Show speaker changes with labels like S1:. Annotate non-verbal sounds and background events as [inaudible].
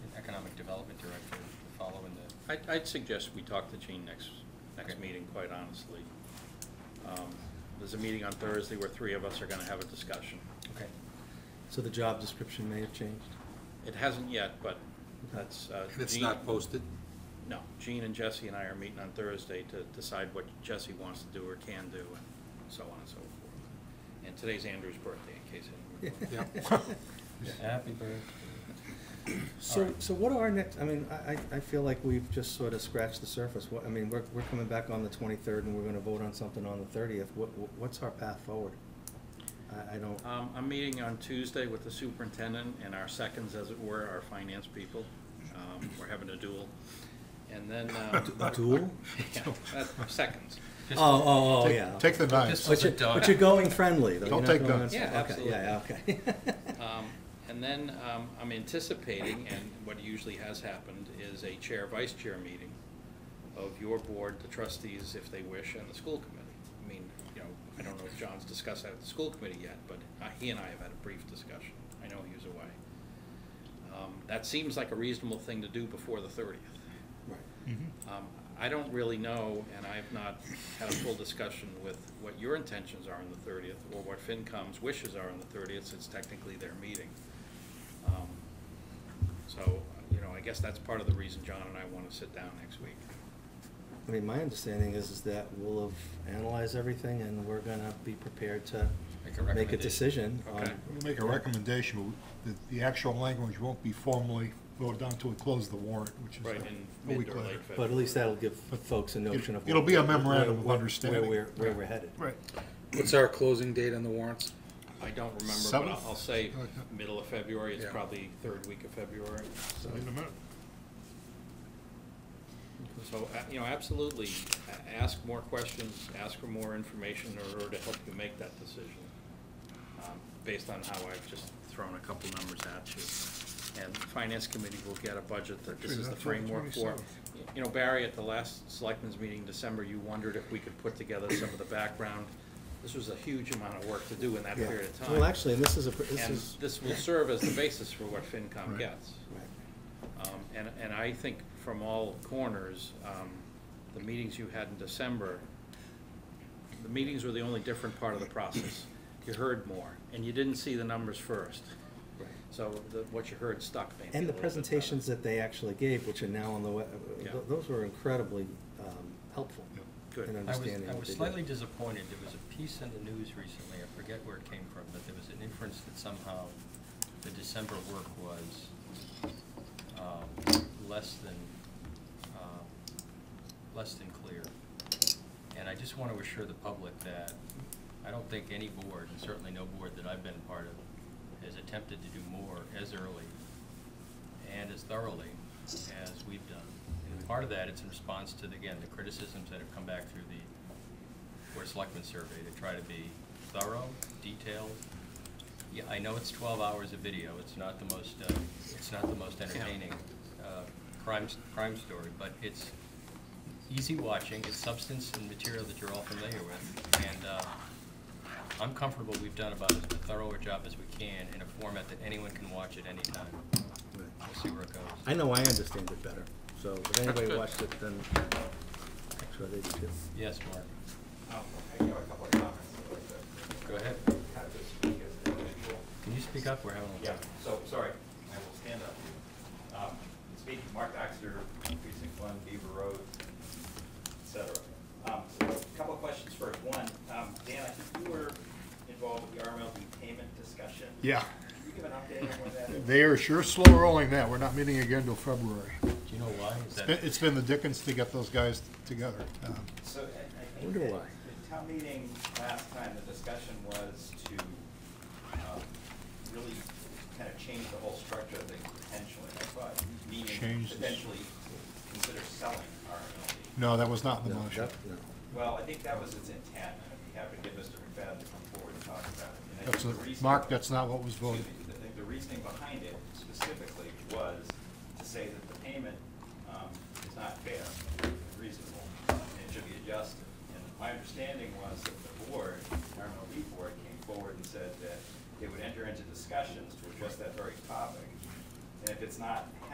S1: I'd, I'd suggest we talk to Gene next, next
S2: Okay.
S1: meeting, quite honestly. Um, There's a meeting on Thursday where three of us are gonna have a discussion.
S2: Okay. So the job description may have changed?
S1: It hasn't yet, but that's, uh.
S3: And it's
S1: Gene-
S3: not posted?
S1: No, Gene and Jesse and I are meeting on Thursday to decide what Jesse wants to do or can do, and so on and so forth. And today's Andrew's birthday, in case
S2: [laughs]
S1: anyone.
S3: [laughs]
S4: Happy birthday.
S2: So,
S4: Alright.
S2: so what are our next, I mean, I, I- I feel like we've just sort of scratched the surface. What, I mean, we're, we're coming back on the twenty-third and we're gonna vote on something on the thirtieth. What, what's our path forward? I, I don't, oh,
S1: Um, I'm meeting on Tuesday with the superintendent and our seconds, as it were, our finance people. Um, we're having a duel. And then, uh.
S2: A duel?
S1: [laughs] Yeah, that's seconds.
S2: oh, oh, oh, yeah.
S5: Take the knives.
S2: But you're, but you're going friendly, though. You're
S5: Don't
S2: not
S5: take
S2: going
S5: guns.
S2: on-
S1: Yeah,
S2: okay, Yeah, yeah, okay.
S1: [laughs] Um, And then um, I'm anticipating, and what usually has happened, is a chair-vice chair meeting of your board, the trustees, if they wish, and the school committee. I mean, you know, I don't know if John's discussed that with the school committee yet, but uh, he and I have had a brief discussion. I know he was away. Um, That seems like a reasonable thing to do before the thirtieth.
S2: Right.
S1: Um, I don't really know, and I have not had a full discussion with what your intentions are on the thirtieth, or what FinCom's wishes are on the thirtieth, since technically their meeting. Um, So, you know, I guess that's part of the reason John and I want to sit down next week.
S2: I mean, my understanding is, is that we'll have analyzed everything and we're gonna be prepared to
S1: Make a
S2: make a
S1: recommendation.
S2: decision on.
S1: Okay.
S5: We'll make a recommendation, but the, the actual language won't be formally voted on until we close the warrant, which is
S1: Right,
S5: a
S1: in
S5: a
S1: mid
S5: week
S1: or
S5: later.
S1: late
S2: But at
S1: February.
S2: least that'll give folks a notion of.
S5: It'll be a memorandum
S2: where-
S5: of
S2: where-
S5: understanding.
S2: Where we're, where we're headed.
S5: Right.
S3: What's our closing date on the warrants?
S1: I don't remember, but I'll- I'll
S5: Seventh?
S1: say
S5: Like that.
S1: middle of February, it's
S3: Yeah.
S1: probably third week of February.
S5: So in a minute.
S1: So, uh, you know, absolutely, a- ask more questions, ask for more information in order to help you make that decision, um, based on how I've just thrown a couple numbers at you. And the Finance Committee will get a budget that this
S5: Actually,
S1: is the
S5: that's on the
S1: framework for.
S5: 27th.
S1: Y- You know, Barry, at the last Selectmen's meeting in December, you wondered if we could put together some of the background. This was a huge amount of work to do in that
S2: Yeah.
S1: period of time.
S2: Well, actually, this is a, pr- this
S1: And
S2: is.
S1: this will serve as the basis for what FinCom
S5: Right.
S1: gets.
S2: Right.
S1: Um, And, and I think from all corners, um, the meetings you had in December, the meetings were the only different part of the
S2: [coughs]
S1: process. You heard more, and you didn't see the numbers first.
S2: Right.
S1: So the- what you heard stuck maybe.
S2: And
S1: a little
S2: the
S1: bit better.
S2: presentations that they actually gave, which are now on the web,
S1: Yeah.
S2: those were incredibly um, helpful
S5: Yep.
S1: Good.
S2: in
S1: I was-
S4: I was,
S2: understanding
S4: I
S2: what
S4: was
S2: they did.
S4: slightly disappointed, there was a piece in the news recently, I forget where it came from, but there was an inference that somehow the December work was um, less than, um, less than clear. And I just want to assure the public that I don't think any board, and certainly no board that I've been a part of, has attempted to do more as early and as thoroughly as we've done. And part of that, it's in response to, again, the criticisms that have come back through the Board of Selectmen survey to try to be thorough, detailed. Yeah, I know it's twelve hours of video, it's not the most, uh, it's not the most entertaining uh, crime, s- crime story, but it's easy watching, it's substance and material that you're all familiar with, and uh, I'm comfortable we've done about as thorough a job as we can in a format that anyone can watch at any time.
S2: Right.
S4: We'll see where it goes.
S2: I know I understand it better, so if anybody
S1: good.
S2: watched it, then I'm sure they did too.
S4: Yes, Mark,
S6: I have a couple of comments I'd like to
S4: go ahead.
S6: kind of just speak as an individual.
S4: Can you speak up? We're having a.
S6: Yeah, so, sorry, I will stand up. Um, Speaking, Mark Doxter, precinct one, Beaver Road, et cetera. Um, Couple of questions first. One, um, Dan, I think you were involved with the RMLD payment discussion.
S5: Yeah,
S6: Can you give an update on where that is?
S5: they are sure slow rolling that. We're not meeting again till February.
S4: Do you know why? Is
S5: It's
S4: that?
S5: been- It's been the dickens to get those guys together. Um,
S6: So I- I think
S2: Wonder
S6: that
S2: why.
S6: the town meeting last time, the discussion was to um, really kind of change the whole structure of things potentially, I thought, meaning
S5: Change the-
S6: potentially consider selling RMLD.
S5: No, that was not in the
S2: No,
S5: motion.
S2: that- no.
S6: Well, I think that was its intent, and I'd be happy to get Mr. McFadden to come forward and talk about it. And I think
S5: That's,
S6: the
S5: a-
S6: reason-
S5: Mark, that's not what was
S6: Excuse
S5: voted.
S6: me, I think the reasoning behind it specifically was to say that the payment um, is not fair, reasonable, and it should be adjusted. And my understanding was that the board, the RMLD board, came forward and said that they would enter into discussions to address that very topic. And if it's not